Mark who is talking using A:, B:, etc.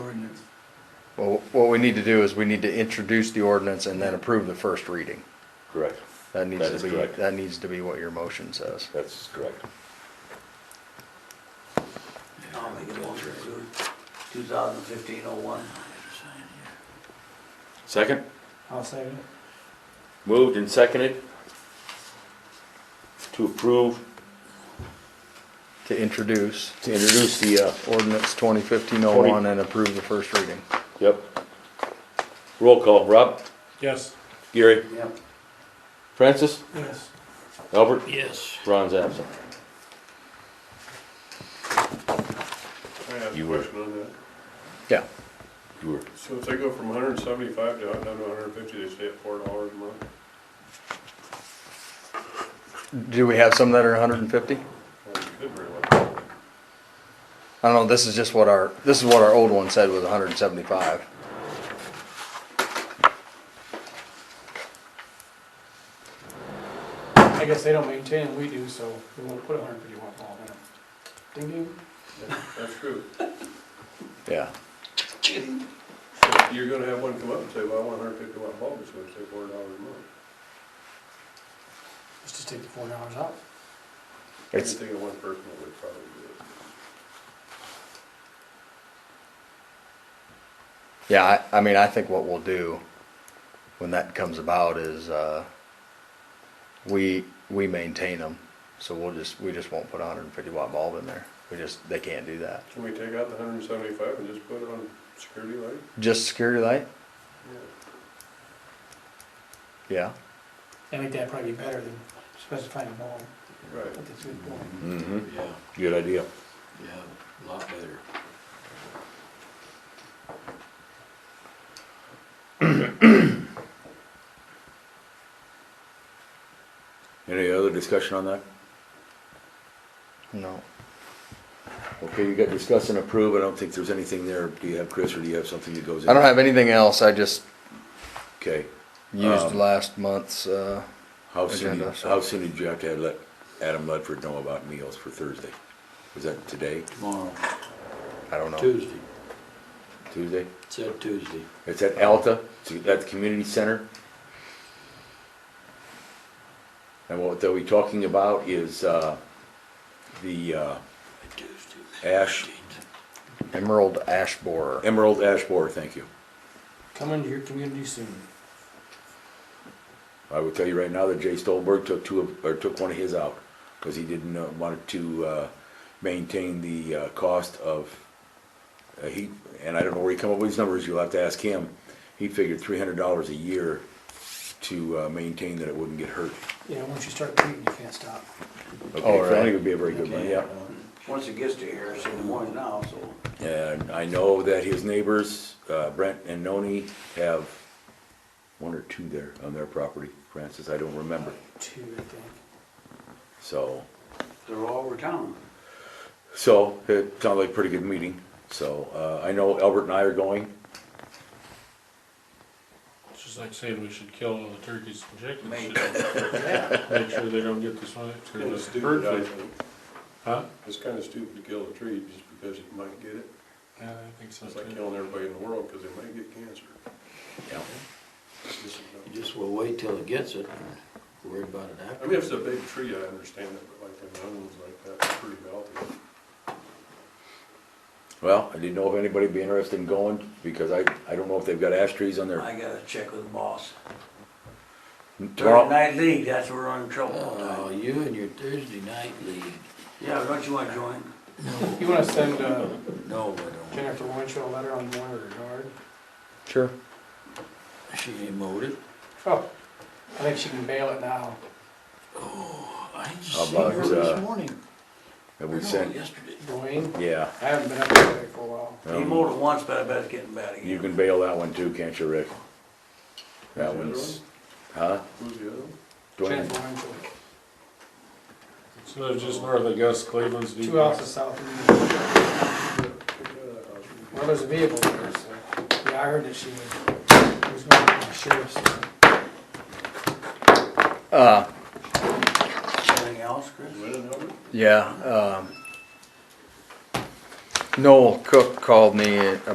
A: Well, what we need to do is we need to introduce the ordinance and then approve the first reading.
B: Correct.
A: That needs
B: is
A: to be,
B: correct.
A: that needs to be what your motion says.
B: That's correct.
C: I'll make a motion to approve 2015-01.
B: Second?
D: I'll second it.
B: Moved and seconded to approve,
A: To introduce
B: to introduce the, uh,
A: ordinance twenty fifteen oh one and approve the first reading.
B: yep. Roll call, Rob,
D: Yes.
B: Gary,
C: Yep.
B: Francis,
D: Yes.
B: Albert,
C: Yes.
B: Ron's absent.
E: I have
B: You
E: a
B: were-
E: question on that.
A: Yeah,
B: You were,
E: So if they go from hundred and seventy-five to, down to hundred and fifty, they stay at four dollars a month?
A: do we have some that are hundred and fifty?
E: Well, it Could very well.
A: I don't know, this is just what our, this is what our old one said was hundred and seventy-five.
D: I guess they don't maintain it, we do, so we won't put a hundred fifty watt bulb in it. Ding ding.
E: That's true.
A: Yeah,
E: So You're gonna have one come up and say, well, I want hundred and fifty watt bulb, it's gonna say four dollars a month.
D: Let's just take the four hours out.
E: I
A: it's,
E: think of one person that would probably do it.
A: yeah, I, I mean, I think what we'll do when that comes about is, uh, we, we maintain them. So we'll just, we just won't put a hundred and fifty watt bulb in there. We just, they can't do that.
E: Can we take out the hundred and seventy-five and just put it on security light?
A: Just security light?
E: Yeah.
A: Yeah.
D: I think that'd probably be better than specifying a bulb. I
E: Right.
D: think that's a good point.
B: mm-hmm,
F: Yeah,
B: good idea.
F: yeah, a lot better.
B: Any other discussion on that?
A: No.
B: Okay, you got discuss and approve, I don't think there's anything there, do you have, Chris, or do you have something that goes in?
A: I don't have anything else. I just
B: Okay,
A: used
B: Um,
A: last month's. Uh,
B: how soon,
A: Agenda,
B: did-
A: so-
B: how soon did you have to have let Adam Ledford know about meals for Thursday? Was that today,
F: Tomorrow,
A: I don't know.
F: Tuesday,
B: Tuesday?
F: said Tuesday.
B: It's at Alta, it's at the community center. And what they'll be talking about is, uh, the, uh,
F: Tuesday.
B: ash,
A: Emerald ash borer.
B: emerald ash borer, thank you.
D: Come into your community soon.
B: I would tell you right now that Jay Stolberg took two, of- or took one of his out, cause he didn't, uh, wanted to, uh, maintain the, uh, cost of, uh, he, and I don't know where he come up with these numbers, you'll have to ask him. He figured three hundred dollars a year to, uh, maintain that it wouldn't get hurt.
D: Yeah, once you start treating, you can't stop.
B: Okay,
A: All
B: so I think
A: right.
B: it would be a very good one, yeah.
C: Mm-hmm. Once it gets to here, it's in the morning now, so.
B: And I know that his neighbors, uh, Brent and Noni, have one or two there on their property, Francis, I don't remember.
D: Two, I think.
B: So,
C: They're all over town.
B: so it sounded like a pretty good meeting. So, uh, I know Albert and I are going.
G: It's just like saying we should kill all the turkeys and
C: Maybe.
G: chickens. Make sure they don't get this one,
E: It's kinda
G: because it's
E: stupid,
G: bird
E: I
G: flu.
E: think.
G: Huh?
E: It's kinda stupid to kill a tree just because it might get it.
G: Yeah, I think so
E: It's like
G: too.
E: killing everybody in the world, cause they might get cancer.
B: Yeah.
E: This is no-
F: You Just will wait till it gets it, and worry about it
E: I
F: after.
E: mean, if it's a big tree, I understand it, but like the mountains like that, it's pretty healthy.
B: Well, I didn't know if anybody'd be interested in going because I, I don't know if they've got ash trees on their
C: I gotta check with the boss. Thursday
B: tomorrow.
C: night league, that's where we're in trouble all the
F: Oh,
C: time.
F: you and your Thursday night league.
C: Yeah, don't you wanna join?
D: You wanna send, uh,
F: No, I don't.
D: Jennifer Winchell a letter on one of her yard?
A: Sure.
F: She ain't mowed it.
D: Oh, I think she can bail it now.
F: Oh, I
B: How
F: just seen her
B: about, uh,
F: this morning.
B: Have
F: Or
B: we
F: no,
B: sent,
F: Yesterday.
D: Dwayne,
B: yeah.
D: I haven't been up there for a while.
C: He mowed it once, but I bet it's getting bad
B: You
C: again.
B: can bail that one too, can't you, Rick? That one's, huh?
E: Who's the other one?
B: Dwayne?
D: Jennifer Winchell,
G: So it's just north of Gus Cleveland's.
D: two
G: deep-
D: houses south of me.
E: Yeah,
D: Well, there's a vehicle there, so, yeah, I heard that she was, was going to the sheriff's.
A: Uh,
C: Anything else, Chris?
E: Win and Albert?
A: yeah. Um, Noel Cook called me